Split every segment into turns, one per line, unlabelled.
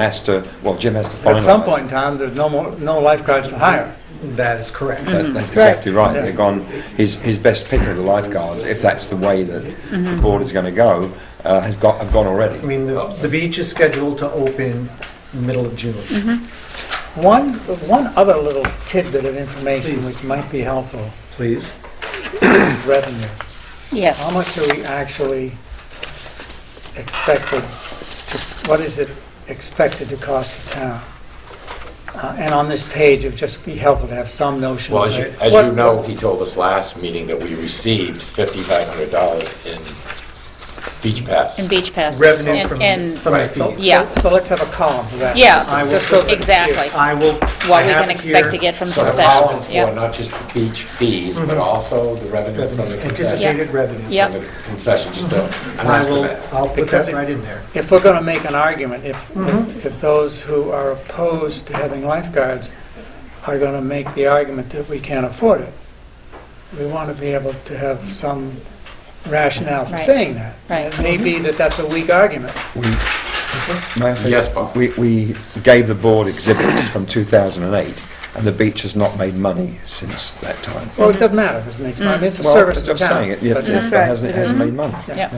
has to, well, Jim has to finalize.
At some point in time, there's no more, no lifeguards to hire.
That is correct.
That-
Mm.
That's exactly right. They're gone, his, his best pick of the lifeguards, if that's the way that the
Mm-hmm.
board is going to go, uh, has got, have gone
I
already.
mean, the, the beach is scheduled to open middle of June.
One, one other little tidbit of information which might be helpful
Please.
is revenue. How
Yes.
much are we actually expected, to- what is it expected to cost the town? Uh, And on this page, it'd just be helpful to have some notion.
Well,
of
as you,
it.
as
What-
you know, he told us last meeting that we received $5,500 in beach pass.
And beach passes.
Revenue
and-
from,
and-
from the
So-
beach.
Yeah.
So let's have a column for that. Uh,
Yeah,
Just-
I will-
just so it's
Exactly.
I will.
What
I
we
have
can
it
expect
here.
to get from
So the column
concessions,
for
yeah.
not just the beach fees, but
Mm-hmm.
also the revenue from the concession.
Anticipated revenue.
Yeah.
From the concession, just a- an
I will,
estimate.
I'll put
Because
that
it-
right in there.
If we're going to make an argument, if,
Mm-hmm.
if- if those who are opposed to having lifeguards are going to make the argument that we can't afford it, we want to be able to have some rationale for
Right.
saying that.
Right.
It may be that that's a weak argument.
May I say-
Yes, Bob.
We, we gave the board exhibits from 2008, and the beach has not made money since that time.
Well, it doesn't matter, because it makes money, I mean, it's a
Well,
service
I'm
to the
just
town.
saying
Mm-hmm.
it, yeah, It
but-
hasn't, it hasn't made money.
Yeah.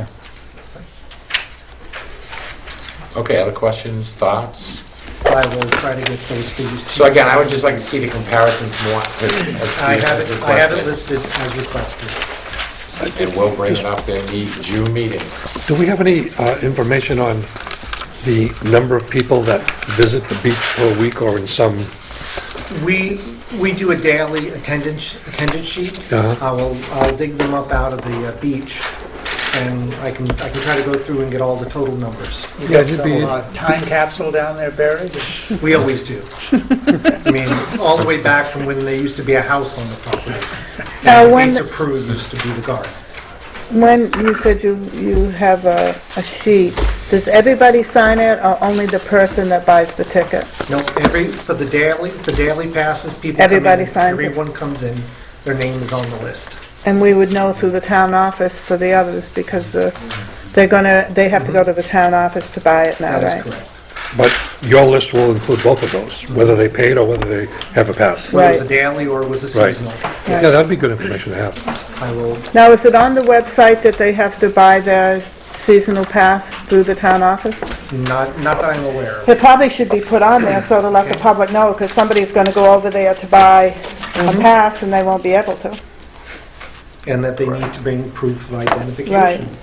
Okay, other questions, thoughts?
I will try to get those figures. to
So
you.
again, I would just like to see the comparisons more. as- as
I have it, I have it
requested.
listed as requested.
And we'll bring it up in the June meeting.
Do we have any uh, information on the number of people that visit the beach per week or in some,
We, we do a daily attendance, attendance sheet.
Uh-huh.
I will, I'll dig them up out of the uh, beach, and I can, I can try to go through and get all the total numbers.
You
Yeah,
got
it'd be-
some uh, time capsule down there buried?
We always do. I mean, all the way back from when there used to be a house on the property.
Now,
And
when-
Lisa Prue used to be the guard.
When you said you, you have a, a sheet, does everybody sign it or only the person that buys the ticket?
No, every, for the daily, the daily passes, people come in.
Everybody signs it.
Everyone comes in, their name is on the list.
And we would know through the town office for the others because the, they're gonna, they have to go to the town office to buy it now,
That is
right?
correct.
but your list will include both of those, whether they paid or whether they have a pass?
Right.
Whether it was a daily or it was a
Right.
seasonal.
Yeah, that'd be good information to have.
I will,
Now, is it on the website that they have to buy their seasonal pass through the town office?
not, not that I'm aware of.
It probably should be put on there so to let the public know because somebody's gonna go over there to buy a pass and they won't be able to.
And that they need to bring proof of
Right.
identification.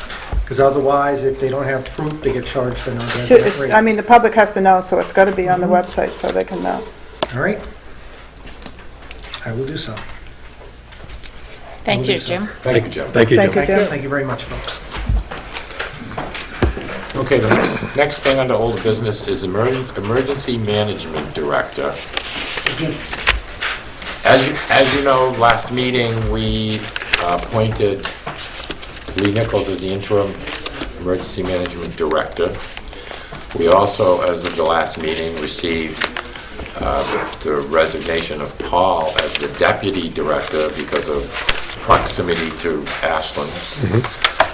Because otherwise, if they don't have proof, they get charged the
Should-
non-resident
it's- I
rate.
mean, the public has to know, so it's gotta be on the website so they can know.
All right. I will do so.
Thank you, Jim.
Thank you, Jim.
Thank you,
Thank
Jim.
you.
Thank you, thank you very much, folks.
Okay, the next, next thing under old business is emerg- emergency management director. As you, as you know, last meeting, we appointed Lee Nichols as the interim emergency management director. We also, as of the last meeting, received uh, the resignation of Paul as the deputy director because of proximity to Ashland.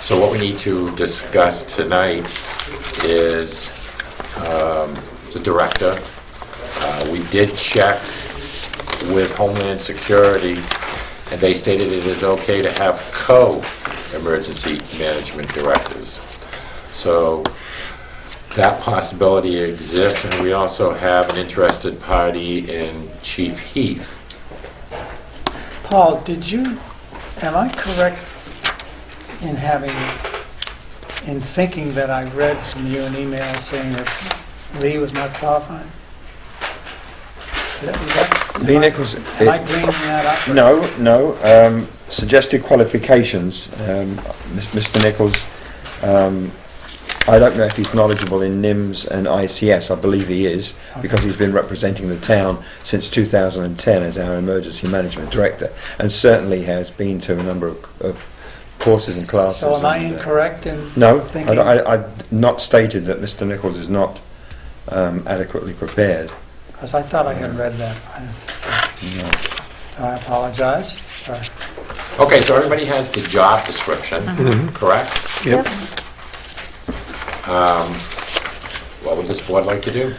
So what we need to discuss tonight is um, the director. Uh, We did check with Homeland Security, and they stated it is okay to have co-emergency management directors. So that possibility exists, and we also have an interested party in Chief Heath.
Paul, did you, am I correct in having, in thinking that I read from you an email saying that Lee was not qualified? Did that- was that-
Lee Nichols,
Am I bringing that up?
No, no. Um, suggested qualifications, um, Mis- Mr. Nichols. Um, I don't know if he's knowledgeable in NIMS and ICS. I believe he is because he's been representing the town since 2010 as our emergency management director, and certainly has been to a number of, of courses and classes.
So am I
and, uh,
incorrect in
No, I,
thinking?
I, I've not stated that Mr. Nichols is not um, adequately prepared.
Because I thought I had read that. I- so-
No.
So I apologize. for-
Okay, so everybody has the job description, correct?
Yep.
What would this board like to do?